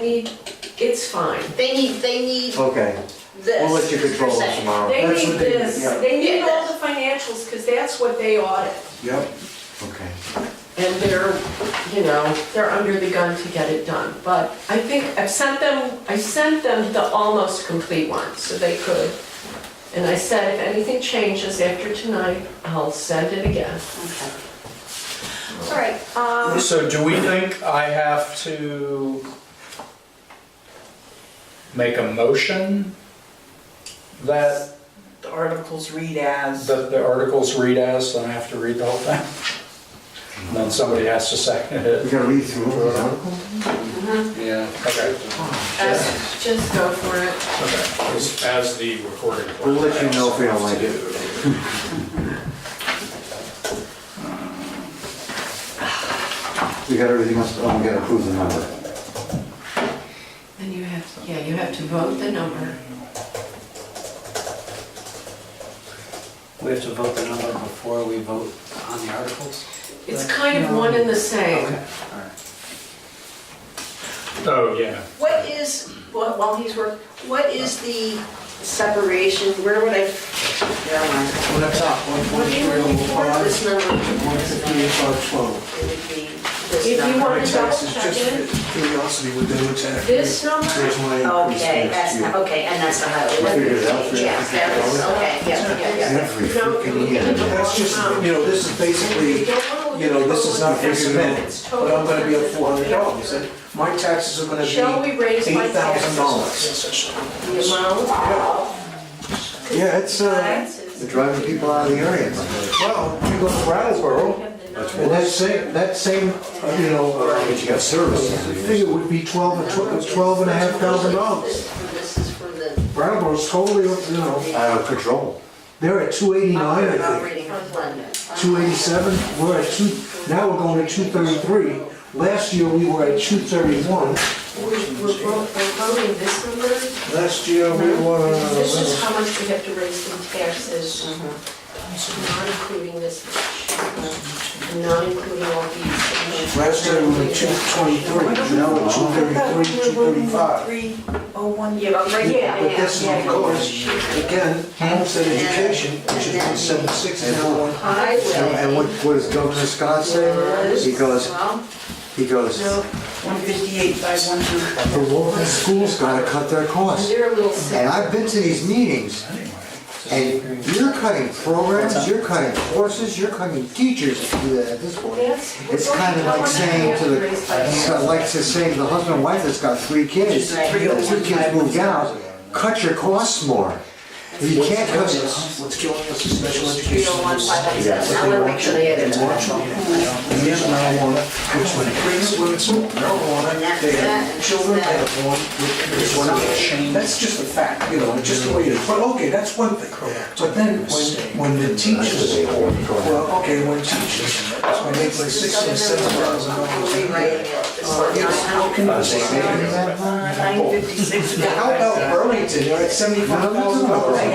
need, it's fine. They need, they need Okay, this. we'll let you control per this se. tomorrow. They Oh, That's need what they- this, yeah. they need all the financials, because that's what they audit. Yep, okay. And they're, you know, they're under the gun to get it done. But I think, I've sent them, I sent them the almost complete one, so they could. And I said, if anything changes after tonight, I'll send it again. Okay. All right, um, So do we think I have to make a motion that The articles read as, the the articles read as, and I have to read the whole thing? And then somebody has to second We it? gotta read through all these articles? Yeah. Okay, Just just go for it. okay. As- As the recording. We'll let you know if we don't like it. We got everything else, oh, we gotta approve the number. And you have, to- yeah, you have to vote the number. We have to vote the number before we vote on the articles? It's kind of one and the same. Okay, all right. Oh, yeah. what is, while while he's working, what is the separation, where would I? there am I. Well, that's up, one What do you looking for, this number? one fifty-eight, twelve. It would be If this you number. want to double Taxes, check just it, curiosity would do exactly. this number, There's my increase Okay, next that's, year. okay, and that's the highway. I figured it out for you. Yes, that was, okay, yeah, yeah, yeah. Every no, you freaking can get the year. wrong That's just, you amount. know, this is You basically, don't wanna look you know, at this total is not expense. for a minute, It's total but I'm gonna be at expenses. four hundred dollars, and my taxes are gonna be Shall we raise my eight thousand dollars. The amount, Yeah, it's, uh, taxes. they're driving people out of the area. Well, you go to Brattleboro, and that same, that same, uh, you know, uh, But you got services. figure would be twelve, or tw- twelve and a half thousand dollars. This is for the, Brattleboro's totally, you know, Out of Uh, control. they're at two eighty-nine, I think. operating plan. 287, we're at two, now we're going to 233. Last year, we were at We're 231. we're vo- we're voting this number, Last year, we were... this is how much we have to raise in taxes, not including this, much, and not including all these. Last year, we were 223, now we're 233, 235. three oh one. Yeah, but right, yeah, yeah, But this is yeah, yeah. because, again, homestead education, which is 176, now one. Highway. And what, what does Governor Scott say? He goes, Well, he goes, No, One fifty-eight, five one two. the local schools gotta cut their costs. they're a little sick. And I've been to these meetings, and you're cutting programs, you're cutting courses, you're cutting teachers to do that at this point. It's kind of like saying to the, it's like to say to the husband and wife that's got three kids, the two kids moved out, cut your costs more. You can't cut this. What's killing us is special three education. oh one, five one seven, I wanna make sure they edit that. And here's marijuana, which when it brings women to marijuana, they have children, they have one, this one, that's just a fact, you know, it's just the way it is. But okay, that's one thing. But then when, when the teachers, well, okay, when teachers, when they play six and seven thousand dollars a Rewriting year. it. Uh, yes, how can you say that? Nine fifty-six. How about Burlington, they're at seventy-five thousand dollars a year.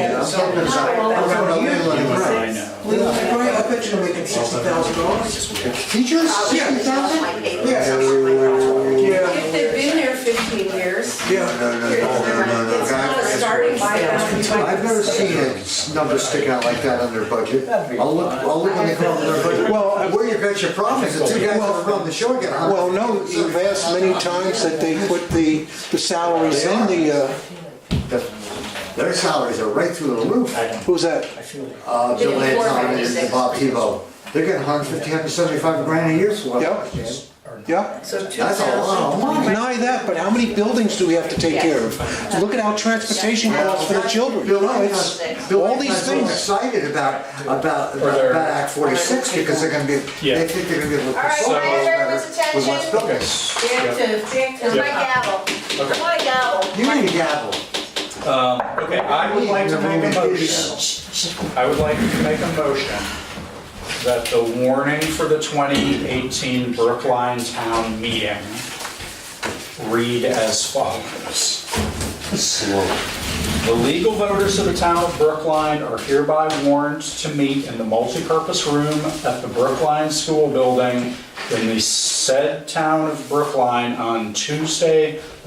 I know. Well, I bet you're making sixty thousand dollars. Teachers, sixty thousand? Yeah. If they've been there fifteen years, Yeah. No, no, no, no, no, no, it's not a starting salary. I've never seen a number stick out like that on their budget. I'll look, I'll look when they come up with their budget. Well, Where you got your profits, the two guys that run the show get a hundred. Well, no, you've asked many times that they put the, the salaries in the, uh, Their salaries are right through the roof. who's that? Uh, Bill Getting four Anton and- ninety-six. and Bob Tebow, they're getting 150, 175 grand a year for what? Yep. Yeah? So two That's a lot of thousand. money. Deny that, but how many buildings do we have to take care of? Look at our transportation costs for the children. Bill No, Anton's, it's Bill all these Anton's so things. excited about, about, about their- about Act 46 because they're gonna be, Yeah. they think they're gonna be able to All right, control can I those have better everyone's with less attention? buildings. Back to, back to. It's my gavel, Okay. my gavel. You need a gavel. Um, Okay, I would like to make a motion. I would like to make a motion that the warning for the 2018 Brookline Town Meeting read as follows. The legal voters of the town of Brookline are hereby warned to meet in the multipurpose room at the Brookline School Building in the said town of Brookline on Tuesday,